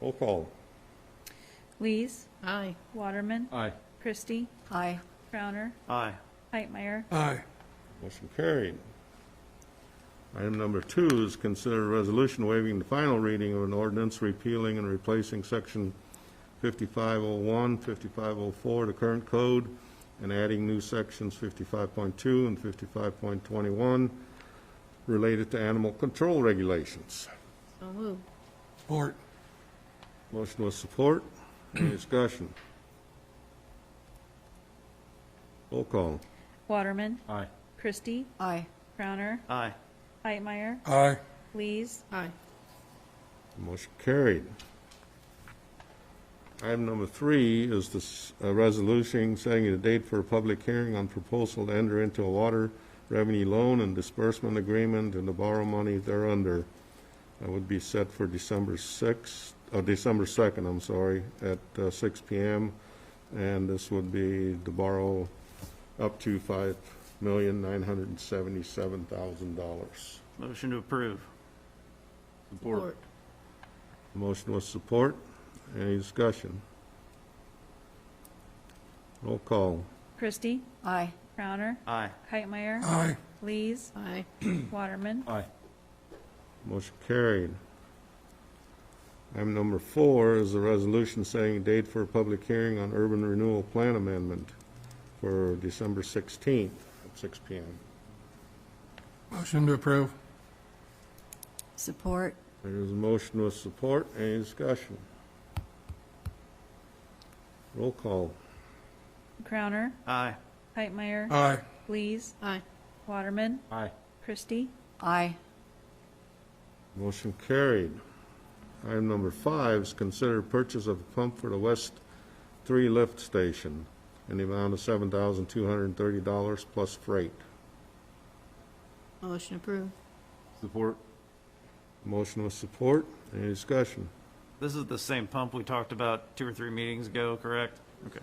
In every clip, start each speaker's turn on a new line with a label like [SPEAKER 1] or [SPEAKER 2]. [SPEAKER 1] Roll call.
[SPEAKER 2] Lees,
[SPEAKER 3] Aye.
[SPEAKER 2] Waterman,
[SPEAKER 4] Aye.
[SPEAKER 2] Christie,
[SPEAKER 3] Aye.
[SPEAKER 2] Crowner,
[SPEAKER 4] Aye.
[SPEAKER 2] Pipemeyer,
[SPEAKER 5] Aye.
[SPEAKER 1] Motion carried. Item number two is consider a resolution waiving the final reading of an ordinance repealing and replacing section 5501, 5504 of oh the current code, and adding new sections 55.2 and 55.21 related to animal control regulations.
[SPEAKER 3] So move.
[SPEAKER 5] Support.
[SPEAKER 1] Motion with support. Any discussion? Roll call.
[SPEAKER 2] Waterman,
[SPEAKER 4] Aye.
[SPEAKER 2] Christie,
[SPEAKER 3] Aye.
[SPEAKER 2] Crowner,
[SPEAKER 4] Aye.
[SPEAKER 2] Pipemeyer,
[SPEAKER 5] Aye.
[SPEAKER 2] Lees,
[SPEAKER 3] Aye.
[SPEAKER 1] Motion carried. Item number three is this uh, resolution setting a date for a public hearing on proposal to enter into a water revenue loan and disbursement agreement and to borrow money thereunder. That would be set for December 6th, uh, December 2nd, I'm sorry, at uh, 6 PM. And this would be to borrow up to $5,977,000.
[SPEAKER 4] Motion to approve.
[SPEAKER 3] Support.
[SPEAKER 1] Motion with support. Any discussion? Roll call.
[SPEAKER 2] Christie,
[SPEAKER 3] Aye.
[SPEAKER 2] Crowner,
[SPEAKER 4] Aye.
[SPEAKER 2] Pipemeyer,
[SPEAKER 5] Aye.
[SPEAKER 2] Lees,
[SPEAKER 3] Aye.
[SPEAKER 2] Waterman,
[SPEAKER 4] Aye.
[SPEAKER 1] Motion carried. Item number four is a resolution setting a date for a public hearing on urban renewal plan amendment for December 16th at 6 PM.
[SPEAKER 5] Motion to approve.
[SPEAKER 3] Support.
[SPEAKER 1] There's a motion with support. Any discussion? Roll call.
[SPEAKER 2] Crowner,
[SPEAKER 4] Aye.
[SPEAKER 2] Pipemeyer,
[SPEAKER 5] Aye.
[SPEAKER 2] Lees,
[SPEAKER 3] Aye.
[SPEAKER 2] Waterman,
[SPEAKER 4] Aye.
[SPEAKER 2] Christie,
[SPEAKER 3] Aye.
[SPEAKER 1] Motion carried. Item number five is consider purchase of a pump for the West Three Lift Station in the amount of seven thousand two hundred and thirty dollars plus freight.
[SPEAKER 3] Motion approved.
[SPEAKER 4] Support.
[SPEAKER 1] Motion with support. Any discussion?
[SPEAKER 4] This is the same pump we talked about two or three meetings ago, correct? Okay.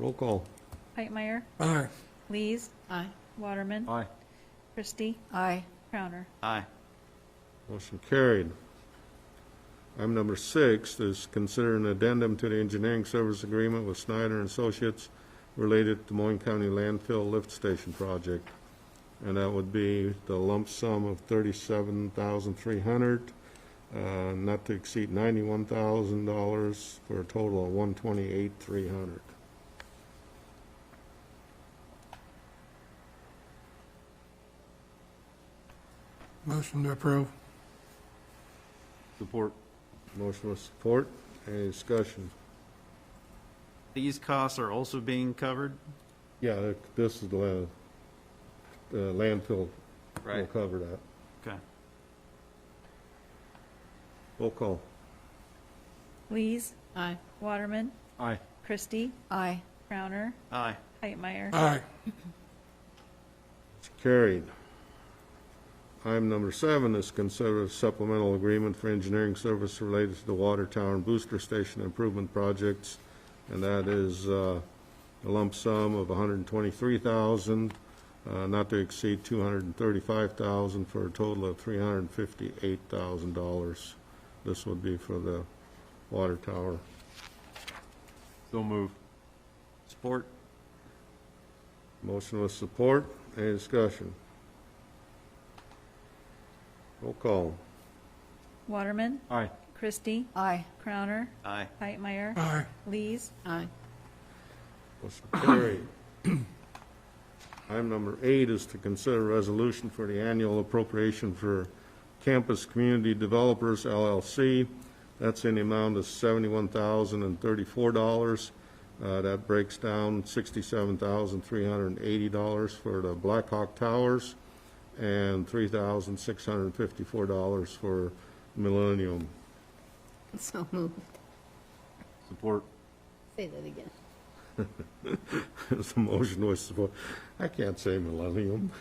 [SPEAKER 1] Roll call.
[SPEAKER 2] Pipemeyer,
[SPEAKER 5] Aye.
[SPEAKER 2] Lees,
[SPEAKER 3] Aye.
[SPEAKER 2] Waterman,
[SPEAKER 4] Aye.
[SPEAKER 2] Christie,
[SPEAKER 3] Aye.
[SPEAKER 2] Crowner,
[SPEAKER 4] Aye.
[SPEAKER 1] Motion carried. Item number six is consider an addendum to the engineering service agreement with Snyder and Associates related to Moyne County landfill lift station project. And that would be the lump sum of thirty-seven thousand three hundred, uh, not to exceed ninety-one thousand dollars for a total of one twenty-eight three hundred.
[SPEAKER 5] Motion to approve.
[SPEAKER 4] Support.
[SPEAKER 1] Motion with support. Any discussion?
[SPEAKER 4] These costs are also being covered?
[SPEAKER 1] Yeah, this is the, la- the landfill. We'll cover that.
[SPEAKER 4] Okay.
[SPEAKER 1] Roll call.
[SPEAKER 2] Lees,
[SPEAKER 3] Aye.
[SPEAKER 2] Waterman,
[SPEAKER 4] Aye.
[SPEAKER 2] Christie,
[SPEAKER 3] Aye.
[SPEAKER 2] Crowner,
[SPEAKER 4] Aye.
[SPEAKER 2] Pipemeyer,
[SPEAKER 5] Aye.
[SPEAKER 1] It's carried. Item number seven is consider a supplemental agreement for engineering service related to the water tower and booster station improvement projects, and that is uh, a lump sum of $123,000, uh, not to exceed $235,000, for a total of $358,000. This would be for the water tower.
[SPEAKER 4] So move. Support.
[SPEAKER 1] Motion with support. Any discussion? Roll call.
[SPEAKER 2] Waterman,
[SPEAKER 4] Aye.
[SPEAKER 2] Christie,
[SPEAKER 3] Aye.
[SPEAKER 2] Crowner,
[SPEAKER 4] Aye.
[SPEAKER 2] Pipemeyer,
[SPEAKER 5] Aye.
[SPEAKER 2] Lees,
[SPEAKER 3] Aye.
[SPEAKER 1] Motion carried. Item number eight is to consider a resolution for the annual appropriation for Campus Community Developers LLC. That's in the amount of seventy-one thousand and thirty-four dollars. Uh, That breaks down sixty-seven thousand three hundred and eighty dollars for the Black Hawk Towers and three thousand six hundred and fifty-four dollars for Millennium.
[SPEAKER 3] So moved.
[SPEAKER 4] Support.
[SPEAKER 3] Say that again.
[SPEAKER 1] There's a motion with support. I can't say Millennium.